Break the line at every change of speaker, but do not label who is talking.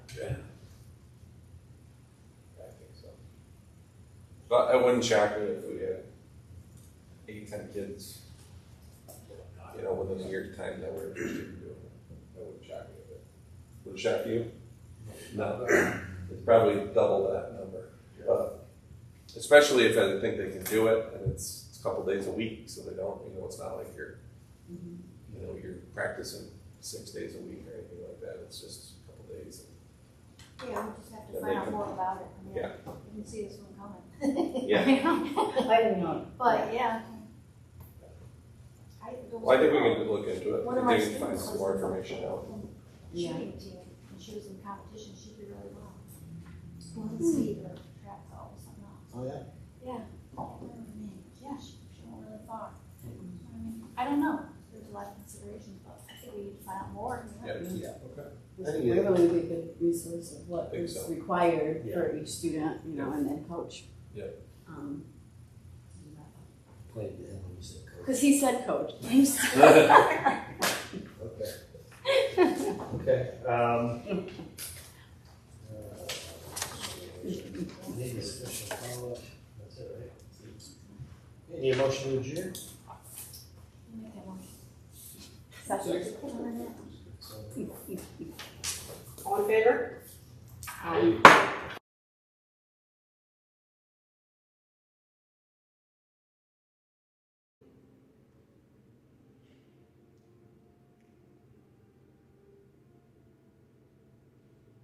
But it wouldn't shock me if we had eight, ten kids, you know, within a year's time that were interested in doing it. That wouldn't shock me a bit. Would it shock you? No, it's probably double that number. But Especially if I think they can do it and it's, it's a couple days a week, so they don't, you know, it's not like you're, you know, you're practicing six days a week or anything like that. It's just a couple days.
Yeah, we just have
Yeah,
to
they
find out
can-
more about it.
Yeah.
You can see this one coming.
I don't know.
But, yeah. I don't.
Well, I think we can look into it.
One of
I
my
think we can find
students
some
was
more
involved
information out.
in the
Yeah.
Shooting team, and she was in competition, she did really well. One speed or track ball or something else.
Oh, yeah.
Yeah. I don't remember the name. Yeah, she, she went really far. I mean, I don't know, there's a lot of considerations, but I think we need to find out more, you know?
Yeah.
Yeah, okay.
It's
Anyway.
really a good resource of what
Think
is
so.
required
Yeah.
for each student, you know, and then coach.
Yeah.
Um,
Played the hell when you said coach.
Cause he said coach.
Okay. Okay, um. uh, Need a special follow-up, that's it, right? Any motion to adjourn?
Make that one.
Second.
One minute.
So-
All in favor? Aye.